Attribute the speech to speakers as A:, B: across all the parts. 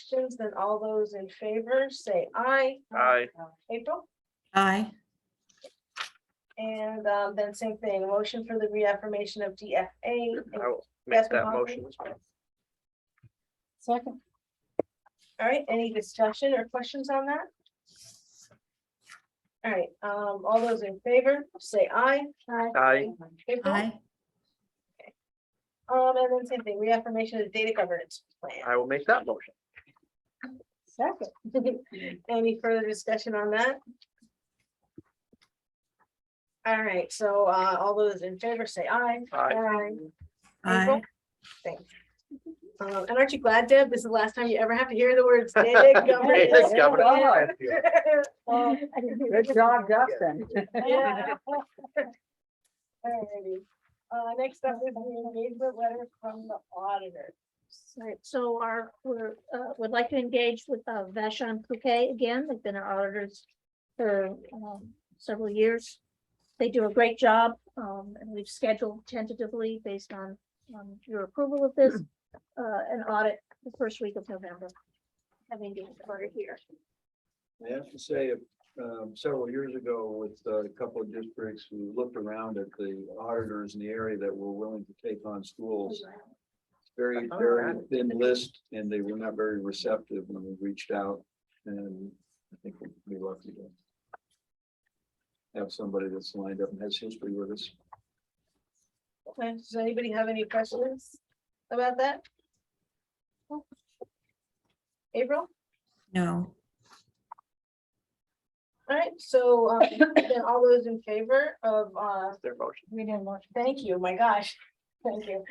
A: questions, then all those in favor say aye.
B: Aye.
A: April,
C: Aye.
A: and um, then same thing, motion for the reaffirmation of DFA.
B: I will make
A: Catherine
B: that
A: Hahn?
B: motion.
A: Second. All right, any discussion or questions on that? All right, um, all those in favor, say aye.
B: Aye.
A: April?
C: Aye.
A: Um, and then same thing, reaffirmation of data governance plan.
B: I will make that motion.
A: Second. Any further discussion on that? All right, so uh, all those in favor say aye.
B: Aye.
C: Aye.
A: Thanks. Um, and aren't you glad, Deb, this is the last time you ever have to hear the words data
B: Hey,
A: governance?
B: thanks, Governor.
D: Wow.
B: Yeah.
D: Good job, Justin.
A: Yeah. Alrighty. Uh, next up is the engagement letter from the auditor.
E: Right, so our, we're, uh, would like to engage with uh, Vashon Couquet again. They've been our auditors for um, several years. They do a great job, um, and we've scheduled tentatively based on, on your approval of this, uh, an audit the first week of November. Having the audit here.
F: I have to say, um, several years ago with uh, a couple of districts, we looked around at the auditors in the area that were willing to take on schools. Very,
B: Oh,
F: very
B: right.
F: thin list and they were not very receptive when we reached out and I think we'd be lucky to have somebody that's lined up and has history with us.
A: Okay, Does anybody have any questions about that? April?
C: No.
A: Alright, so, um, then all those in favor of, uh,
B: Their motion,
A: we didn't motion. Thank you, my gosh. Thank you.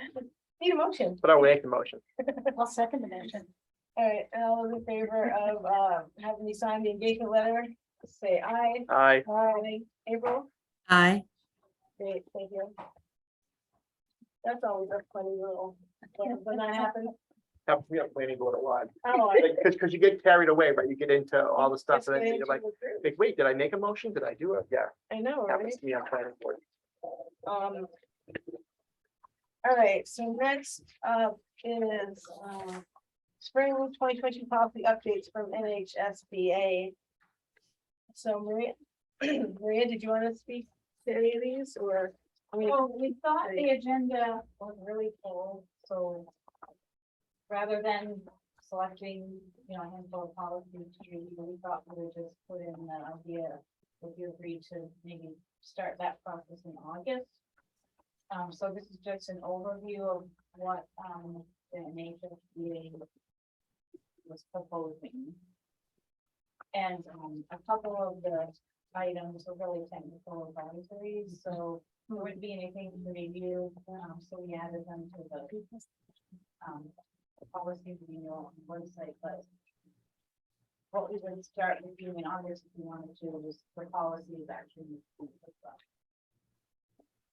A: Need a motion.
B: but I will make the motion.
E: I'll second the motion.
A: Alright, all those in favor of, uh, having me sign the engagement letter, say aye.
B: Aye.
A: Aye. April?
C: Aye.
A: Great, thank you. That's always a funny little, when when that happens.
B: Have, we have planning board at large.
A: Oh, I-
B: Like, Cause, 'cause you get carried away, right? You get into all the stuff
A: Just
B: and then
A: getting
B: you're
A: to
B: like,
A: the group.
B: like, wait, did I make a motion? Did I do it? Yeah,
A: I know, right?
B: happens to me on planning board.
A: Um. All right, so next up is, uh, spring twenty twenty policy updates from NHSBA. So Maria, Maria, did you want to speak to any of these or? I mean,
G: Well, we thought the
A: Right.
G: agenda was really full, so rather than selecting, you know, a handful of policies to read, we thought we would just put in the idea. Would you agree to maybe start that process in August? Um, so this is just an overview of what, um, the NHSBA was proposing. And, um, a couple of the items were really technical advisories, so there wouldn't be anything to review, um, so we added them to the. Um, policy manual on the website, but. What we would start reviewing in August if we wanted to was for policies actually.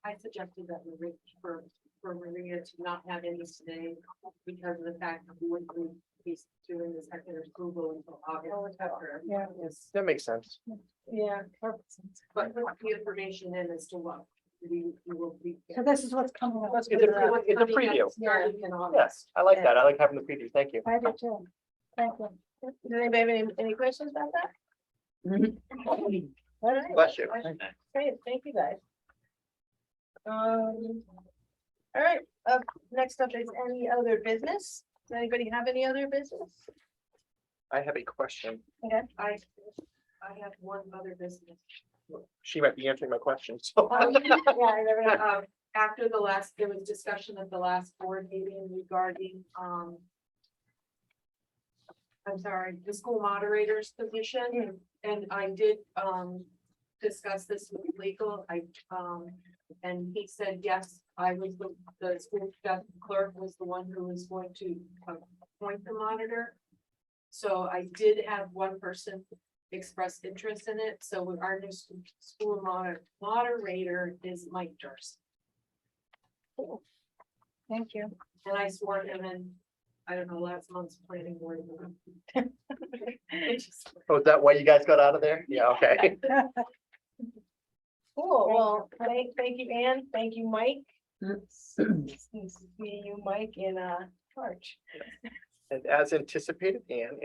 H: I suggested that we wait for, for Maria to not have any today because of the fact that we wouldn't be doing the second approval until
B: Oh,
H: August. after.
A: Yeah.
B: That makes sense.
A: yeah,
H: But put the information in as to what we, we will be.
G: So this is what's coming up.
A: let's
B: It's
A: get
B: a,
A: to that.
B: pre- it's a preview.
H: Starting in August.
B: Yes, I like that. I like having the preview. Thank you.
G: I do too. Thank you.
A: Does anybody have any, any questions about that? All right.
B: Bless you.
A: Great, thank you guys. Um, all right, up, next up is any other business? Does anybody have any other business?
B: I have a question.
H: I, I have one other business.
B: She might be answering my question, so.
H: Um, After the last, there was discussion at the last board meeting regarding, um. I'm sorry, the school moderator's position, and I did, um, discuss this with legal, I, um. And he said, yes, I was the, the school staff clerk was the one who was going to appoint the monitor. So I did have one person express interest in it, so with our new s- school moder- moderator is Mike Durst.
G: Thank you.
H: And I swore him in, I don't know, last month's planning board. meeting. I just-
B: Oh, is that why you guys got out of there? Yeah, okay.
A: Cool, well, thank, thank you, Ann, thank you,
G: Mm.
A: Mike. See you, Mike, in, uh, March.
B: And as anticipated, Anne,